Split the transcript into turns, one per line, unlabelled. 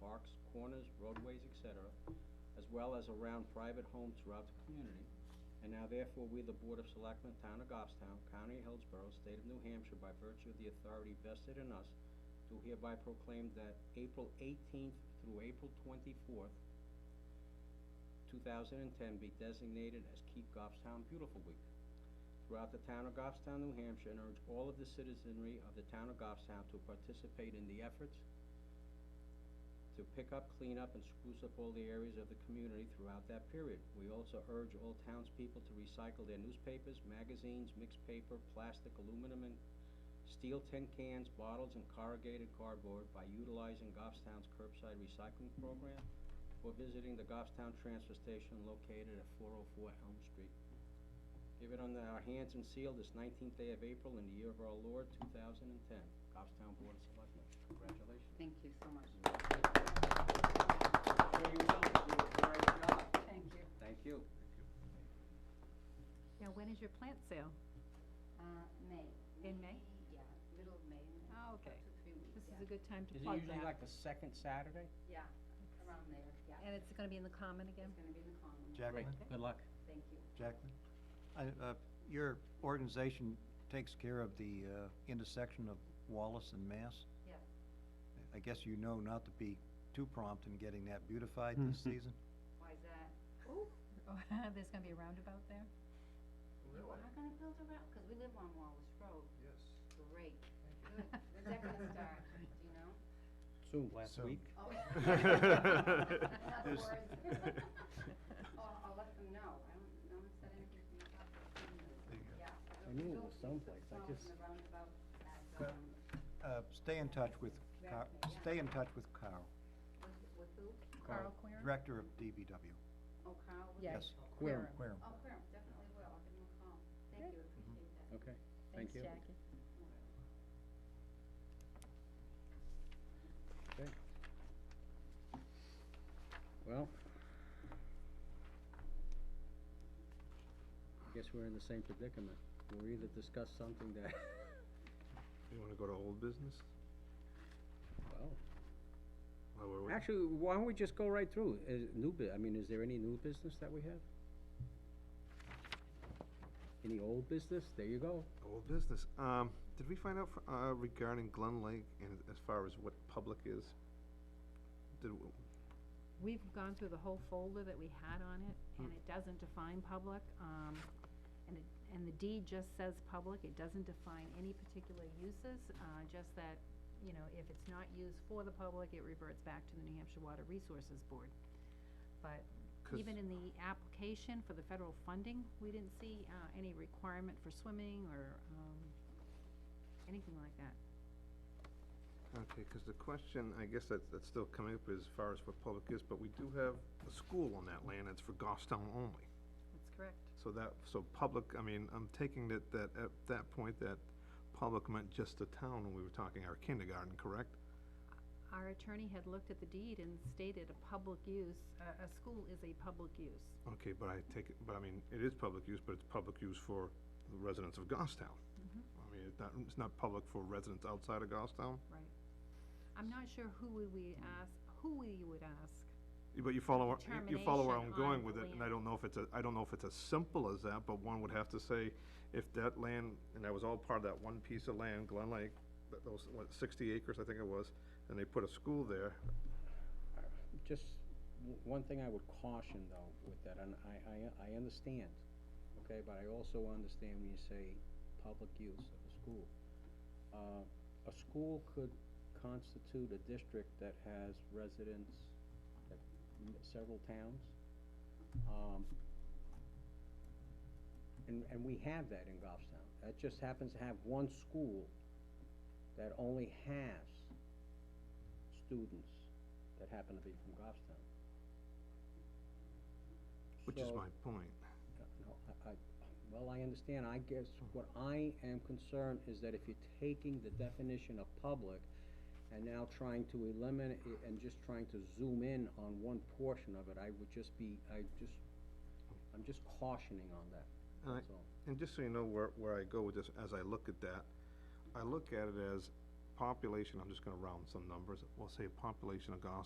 parks, corners, roadways, et cetera, as well as around private homes throughout the community. And now therefore, we, the Board of Selectmen, Town of Goffstown, County of Hillsborough, State of New Hampshire, by virtue of the authority vested in us, do hereby proclaim that April eighteenth through April twenty-fourth, two thousand and ten, be designated as Keep Goffstown Beautiful Week throughout the town of Goffstown, New Hampshire, and urge all of the citizenry of the town of Goffstown to participate in the efforts to pick up, clean up, and spruce up all the areas of the community throughout that period. We also urge all townspeople to recycle their newspapers, magazines, mixed paper, plastic, aluminum, and steel tin cans, bottles, and corrugated cardboard by utilizing Goffstown's curbside recycling program or visiting the Goffstown Transfer Station located at four oh four Elm Street. Give it under our hands and seal this nineteenth day of April in the year of our Lord, two thousand and ten. Goffstown Board of Selectmen, congratulations.
Thank you so much.
Show yourself, you did a great job.
Thank you.
Thank you.
Now, when is your plant sale?
Uh, May.
In May?
Yeah, middle of May. May,
Oh,
up
okay.
to three weeks,
This is a
yeah.
good time to
Is it
plug
usually
that.
like the second Saturday?
Yeah, around there, yeah.
And it's gonna be in the common again?
It's gonna be in the common.
Great,
Jacqueline,
good luck.
Thank you.
Jacqueline, I, uh, your organization takes care of the, uh, intersection of Wallace and Mass.
Yeah.
I guess you know not to be too prompt in getting that beautified this season.
Why is that?
Oh, There's gonna be a roundabout there?
We're not gonna build a route, because we live on Wallace Road.
Yes.
Great. Good. When's that gonna start? Do you know?
Soon, last
Soon.
week.
Oh.
There's-
I'll, I'll let them know. I don't, no one said anything to me about that.
There you go.
I
Yeah.
knew it was
Don't-
someplace, I
don't
just-
The roundabout at,
But-
um,
Uh, stay in touch with Car,
Exactly, yeah.
stay in touch with Carl,
with, with who?
Carl Queer?
Director of DBW.
Oh, Carl? was it?
Yes.
Yes.
Queer.
Querim.
Oh, Querim, definitely will. I'll give him a call. Thank you, appreciate that.
Okay, thank
Thanks,
you.
Jackie.
Well, I guess we're in the same predicament. We'll either discuss something that,
You wanna go to old business?
well,
While we're waiting?
Actually, why don't we just go right through, is, new bu- I mean, is there any new business that we have? Any old business, there you go,
Old business. Um, did we find out, fr- uh, regarding Glen Lake and as far as what public is? Did, w-
We've gone through the whole folder that we had on it,
Hmm.
and it doesn't define public, um, and it, and the deed just says public, it doesn't define any particular uses, uh, just that, you know, if it's not used for the public, it reverts back to the New Hampshire Water Resources Board. But
'Cause-
even in the application for the federal funding, we didn't see, uh, any requirement for swimming or, um, anything like that.
okay, 'cause the question, I guess that's, that's still coming up as far as what public is, but we do have a school on that land, that's for Goffstown only.
That's correct.
So that, so public, I mean, I'm taking that, that, at that point, that public meant just the town when we were talking our kindergarten, correct?
Our attorney had looked at the deed and stated a public use, a, a school is a public use.
Okay, but I take, it but I mean, it is public use, but it's public use for the residents of Goffstown. I mean, it's not, it's not public for residents outside of Goffstown,
Right. I'm not sure who would we ask, who we would ask.
but you follow, where- you- you follow where I'm
Determination
going
on
with
the
it, and I
land.
don't know if it's a, I don't know if it's as simple as that, but one would have to say, if that land, and that was all part of that one piece of land, Glen Lake, that those, what, sixty acres, I think it was, and they put a school there,
just, w- one thing I would caution though with that, and I, I, I understand, okay, but I also understand when you say public use of a school. Uh, a school could constitute a district that has residents, that, m- several towns, um, and, and we have that in Goffstown, that just happens to have one school that only has students that happen to be from Goffstown.
which is
So-
my point.
No, I, I, well, I understand, I guess what I am concerned is that if you're taking the definition of public and now trying to eliminate, it and just trying to zoom in on one portion of it, I would just be, I just, I'm just cautioning on that,
And I,
that's all.
And just so you know where, where I go with this, as I look at that, I look at it as population, I'm just gonna round some numbers, we'll say population of Goffstown